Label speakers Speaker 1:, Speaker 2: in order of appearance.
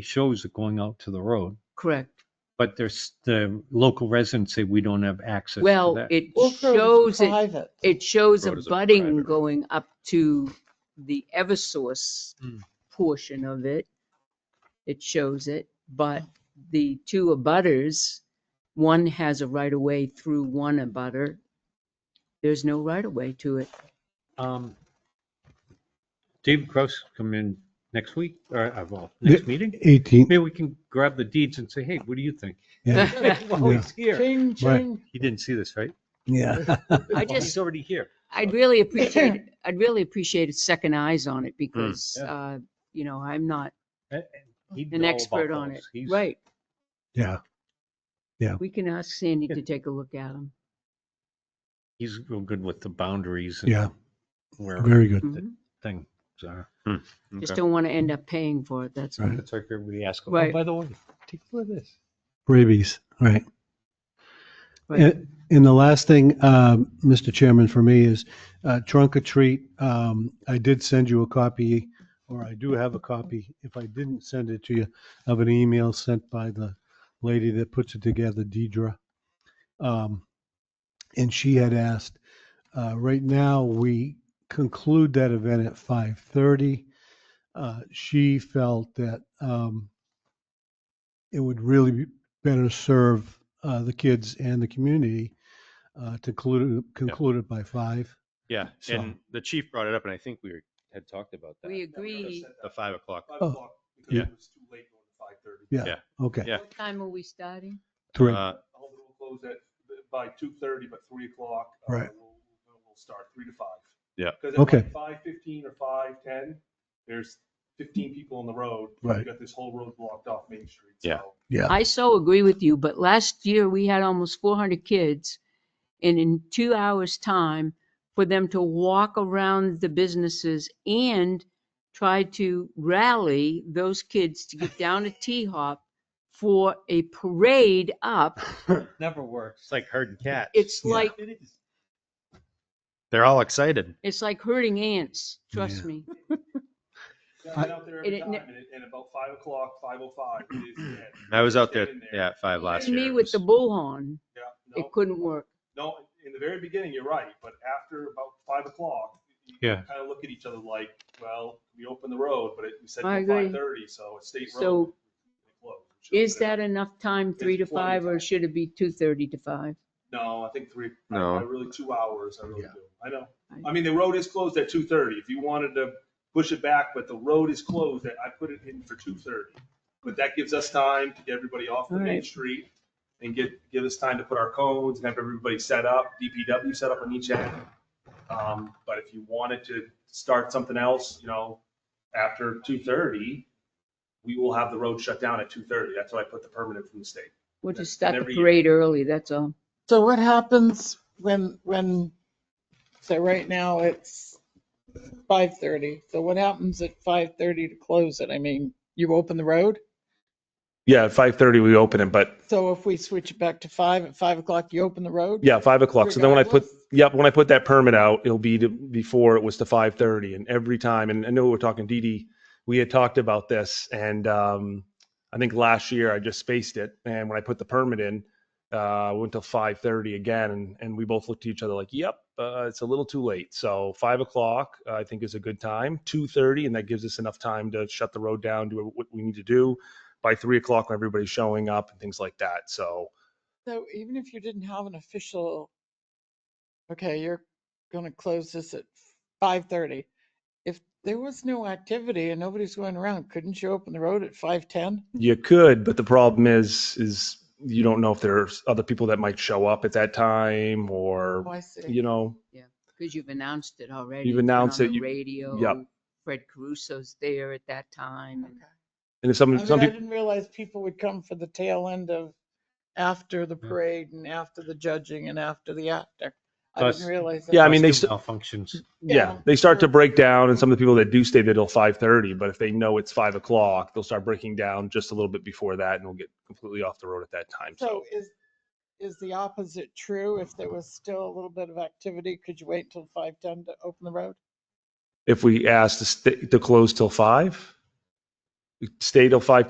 Speaker 1: shows are going out to the road,
Speaker 2: Correct.
Speaker 1: but there's, the local residents say we don't have access to
Speaker 2: Well,
Speaker 1: that.
Speaker 2: it
Speaker 3: Wolf Road is
Speaker 2: shows it,
Speaker 3: private.
Speaker 2: it shows a
Speaker 4: Road is a private
Speaker 2: budding
Speaker 4: road.
Speaker 2: going up to the Eversource
Speaker 4: Hmm.
Speaker 1: Mm.
Speaker 2: portion of it. It shows it, but
Speaker 1: Oh.
Speaker 2: the two abutters, one has a right of way through one abutter. There's no right of way to it.
Speaker 1: Um, David Cross come in next week, or, uh, well, next meeting?
Speaker 5: Eighteenth,
Speaker 1: Maybe we can grab the deeds and say, hey, what do you think?
Speaker 5: yeah,
Speaker 1: Well, he's here.
Speaker 3: Ching,
Speaker 5: Right.
Speaker 3: ching.
Speaker 1: He didn't see this, right?
Speaker 5: yeah.
Speaker 2: I
Speaker 1: Well, He's
Speaker 2: just,
Speaker 1: already here.
Speaker 2: I'd really appreciate, I'd really appreciate a second eyes on it because,
Speaker 4: Hmm.
Speaker 1: yeah.
Speaker 2: uh, you know, I'm not
Speaker 1: Eh, eh, he'd
Speaker 2: an
Speaker 1: know
Speaker 2: expert
Speaker 1: about
Speaker 2: on
Speaker 1: those.
Speaker 2: it.
Speaker 1: He's-
Speaker 2: Right.
Speaker 5: Yeah,
Speaker 2: We can ask Sandy
Speaker 1: Yeah.
Speaker 2: to take a look at them.
Speaker 1: He's real good with the boundaries
Speaker 5: yeah,
Speaker 1: and where
Speaker 5: very good.
Speaker 1: things are.
Speaker 2: Just don't want to end up paying for it, that's all.
Speaker 5: Right.
Speaker 1: It's like everybody asks, oh,
Speaker 2: Right.
Speaker 1: by the way, take a look at this.
Speaker 5: Rabies, right.
Speaker 2: Right.
Speaker 5: And, and the last thing, um, Mr. Chairman, for me is uh, trunk or treat. Um, I did send you a copy, or I do have a copy, if I didn't send it to you, of an email sent by the lady that puts it together, Deidre. Um, and she had asked, uh, right now, we conclude that event at 5:30. Uh, She felt that um, it would really be better serve uh, the kids and the community uh, to conclude, conclude it by five.
Speaker 4: Yeah,
Speaker 5: So-
Speaker 4: and the chief brought it up, and I think we were- had talked about that.
Speaker 2: We agree.
Speaker 4: The five o'clock.
Speaker 6: Five
Speaker 5: Oh.
Speaker 6: o'clock, because
Speaker 4: Yeah.
Speaker 6: it was too late going to five thirty.
Speaker 5: Yeah.
Speaker 4: Yeah.
Speaker 5: Okay.
Speaker 4: Yeah.
Speaker 2: What time are we starting?
Speaker 5: Correct.
Speaker 4: Uh,
Speaker 6: The whole will close at, by two thirty, but three o'clock. uh,
Speaker 5: Right.
Speaker 6: We'll, we'll- we'll start three to five.
Speaker 4: Yeah.
Speaker 6: Because
Speaker 5: Okay.
Speaker 6: at five fifteen or five ten, there's fifteen people on the road.
Speaker 5: Right.
Speaker 6: We've got this whole road blocked off Main Street.
Speaker 4: Yeah.
Speaker 6: so-
Speaker 5: Yeah.
Speaker 2: I so agree with you, but last year we had almost 400 kids. And in two hours' time, for them to walk around the businesses and try to rally those kids to get down to T-Hop for a parade up,
Speaker 3: Never works.
Speaker 4: It's like herding cats.
Speaker 2: it's
Speaker 5: Yeah.
Speaker 2: like,
Speaker 4: They're all excited.
Speaker 2: it's like herding ants, trust
Speaker 5: Yeah.
Speaker 2: me.
Speaker 6: Yeah, I've been out there
Speaker 2: it-
Speaker 6: every
Speaker 2: it
Speaker 6: time,
Speaker 2: ne-
Speaker 6: and it- and about five o'clock, five oh five.
Speaker 4: I was out there, yeah, at five last
Speaker 2: To
Speaker 4: year.
Speaker 2: me,
Speaker 4: It
Speaker 2: with the
Speaker 4: was-
Speaker 2: bullhorn,
Speaker 6: Yeah,
Speaker 2: it
Speaker 6: no,
Speaker 2: couldn't work.
Speaker 6: no, in the very beginning, you're right, but after about five o'clock, you-
Speaker 1: Yeah.
Speaker 6: kind of look at each other like, well, we opened the road, but it, we said
Speaker 2: I
Speaker 6: till five
Speaker 2: agree.
Speaker 6: thirty, so it's state road.
Speaker 2: So
Speaker 6: It closed. We should've
Speaker 2: Is
Speaker 6: put it-
Speaker 2: that enough time,
Speaker 6: It's
Speaker 2: three to
Speaker 6: plenty of
Speaker 2: five, or
Speaker 6: time.
Speaker 2: should it be two thirty to five?
Speaker 6: No, I think three, I-
Speaker 4: No.
Speaker 6: I really, two hours, I really
Speaker 5: Yeah.
Speaker 6: do. I know.
Speaker 2: I-
Speaker 6: I mean, the road is closed at two thirty. If you wanted to push it back, but the road is closed, I put it in for two thirty. But that gives us time to get everybody off the
Speaker 2: All
Speaker 6: main
Speaker 2: right.
Speaker 6: street and get, give us time to put our cones and have everybody set up, DPW set up on each end. Um, But if you wanted to start something else, you know, after two thirty, we will have the road shut down at two thirty. That's why I put the permanent from the state.
Speaker 2: We'll just
Speaker 6: And
Speaker 2: start the
Speaker 6: every year.
Speaker 2: parade early, that's all.
Speaker 3: So what happens when, when, so right now it's five thirty. So what happens at five thirty to close it? I mean, you open the road?
Speaker 6: Yeah, at five thirty, we open it, but
Speaker 3: So if we switch it back to five, at five o'clock, you open the road?
Speaker 6: Yeah, five o'clock. So then when I put,
Speaker 3: Regardless?
Speaker 6: yep, when I put that permit out, it'll be to- before it was to five thirty and every time, and I know we're talking Dee Dee, we had talked about this and, um, I think last year I just spaced it and when I put the permit in, uh, went till five thirty again and, and we both looked at each other like, yep, uh, it's a little too late. So five o'clock, uh, I think is a good time, two thirty, and that gives us enough time to shut the road down, do what we need to do by three o'clock when everybody's showing up and things like that. So,
Speaker 3: So even if you didn't have an official, okay, you're gonna close this at five thirty. If there was no activity and nobody's going around, couldn't you open the road at five ten?
Speaker 6: You could, but the problem is, is you don't know if there's other people that might show up at that time or,
Speaker 3: Oh, I see.
Speaker 6: you know,
Speaker 2: Because you've announced it already.
Speaker 6: You've
Speaker 2: It's been
Speaker 6: announced
Speaker 2: on
Speaker 6: it,
Speaker 2: the
Speaker 6: you-
Speaker 2: Radio, Fred Caruso's there at that time. and-
Speaker 3: Okay.
Speaker 6: and
Speaker 3: I
Speaker 6: if some,
Speaker 3: mean, I
Speaker 6: some people,
Speaker 3: didn't realize people would come for the tail end of, after
Speaker 6: Mm.
Speaker 3: the parade and after the judging and after the actor. I
Speaker 1: Plus-
Speaker 3: didn't realize. that.
Speaker 6: Yeah, I mean, they
Speaker 1: Plus two
Speaker 6: st-
Speaker 1: Malfunctions.
Speaker 6: yeah,
Speaker 3: yeah,
Speaker 6: they start to
Speaker 3: sure.
Speaker 6: break down and some of the people that do stay there till five thirty, but if they know it's five o'clock, they'll start breaking down just a little bit before that and we'll get completely off the road at that time.
Speaker 3: So
Speaker 6: So
Speaker 3: is, is the opposite true? If there was still a little bit of activity, could you wait until five ten to open the road?
Speaker 6: if we ask to stay, to close till five, stay till five